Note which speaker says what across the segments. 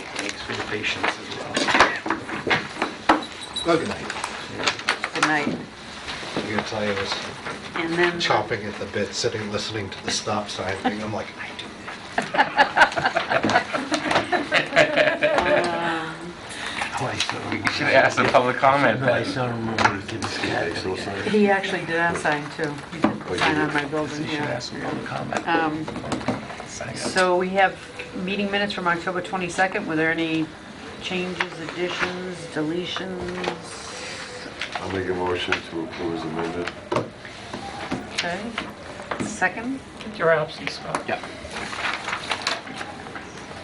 Speaker 1: for your patience as well.
Speaker 2: Good night.
Speaker 3: Good night.
Speaker 2: I'm gonna tell you, I was
Speaker 3: And then,
Speaker 2: chomping at the bit, sitting, listening to the stop sign thing. I'm like, I do
Speaker 3: uh,
Speaker 4: You should ask the public comment
Speaker 5: I
Speaker 4: then.
Speaker 5: still remember the kid's cat. You
Speaker 3: he actually did unsign too. He did
Speaker 4: Oh,
Speaker 3: the sign on my building,
Speaker 4: should
Speaker 3: yeah.
Speaker 4: ask the public comment.
Speaker 3: Um, So we have meeting minutes from October 22nd. Were there any changes, additions, deletions?
Speaker 6: I'll make a motion to approve as amended.
Speaker 3: Okay. Second,
Speaker 4: Your absence, Scott. Yeah.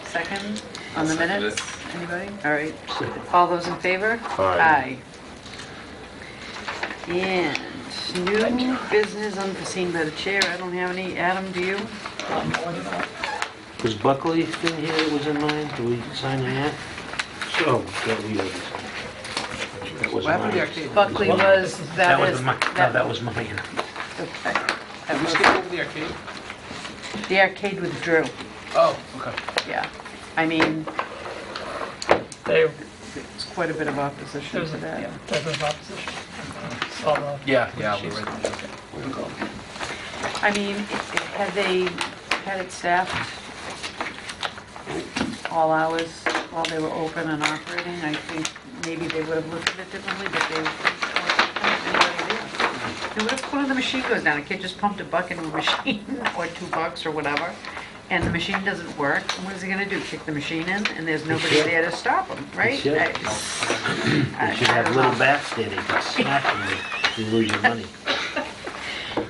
Speaker 3: second on the
Speaker 4: I'll second
Speaker 3: minutes? Anybody? All right. All those in favor?
Speaker 6: Aye.
Speaker 3: Aye. And new business unforeseen by the chair. I don't have any. Adam, do you?
Speaker 5: Was Buckley's thing here that was in mine? Do we sign on that? So, that we, that was
Speaker 4: What happened to the
Speaker 5: mine.
Speaker 4: arcade?
Speaker 3: Buckley was,
Speaker 5: That
Speaker 3: that
Speaker 5: was
Speaker 3: is.
Speaker 5: mine, no, that was mine.
Speaker 3: okay.
Speaker 4: Did
Speaker 3: That
Speaker 4: we
Speaker 3: was-
Speaker 4: skip over the arcade?
Speaker 3: The arcade withdrew,
Speaker 4: Oh, okay.
Speaker 3: yeah. I mean,
Speaker 7: They,
Speaker 3: it's quite a bit of opposition
Speaker 7: there's
Speaker 3: to
Speaker 7: a,
Speaker 3: that.
Speaker 7: yeah, there's an opposition. Saw the-
Speaker 4: Yeah, yeah. we
Speaker 7: She's-
Speaker 4: read that. Okay.
Speaker 3: I mean, had they had it staffed all hours while they were open and operating? I think maybe they would have looked at it differently, but they they would have, one of the machine goes down, a kid just pumped a buck into a machine, or two bucks or whatever, and the machine doesn't work, what is he gonna do, kick the machine in, and there's nobody
Speaker 5: should.
Speaker 3: there to stop him, right?
Speaker 5: should.
Speaker 3: I- I-
Speaker 5: You should
Speaker 3: I
Speaker 5: have
Speaker 3: don't
Speaker 5: little
Speaker 3: know.
Speaker 5: bats there, they can smack them, you lose your money.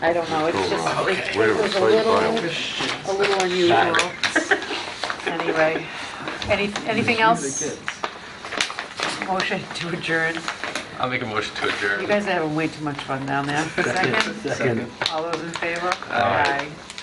Speaker 3: I don't know, it's just, it
Speaker 6: Wait a minute,
Speaker 3: was a
Speaker 6: wait,
Speaker 3: little,
Speaker 6: wait.
Speaker 3: a little unusual. Anyway, any, anything else? Motion to adjourn.
Speaker 4: I'll make a motion to adjourn.
Speaker 3: You guys are having way too much fun down there. Second,
Speaker 5: Second.
Speaker 3: all those in favor? Aye.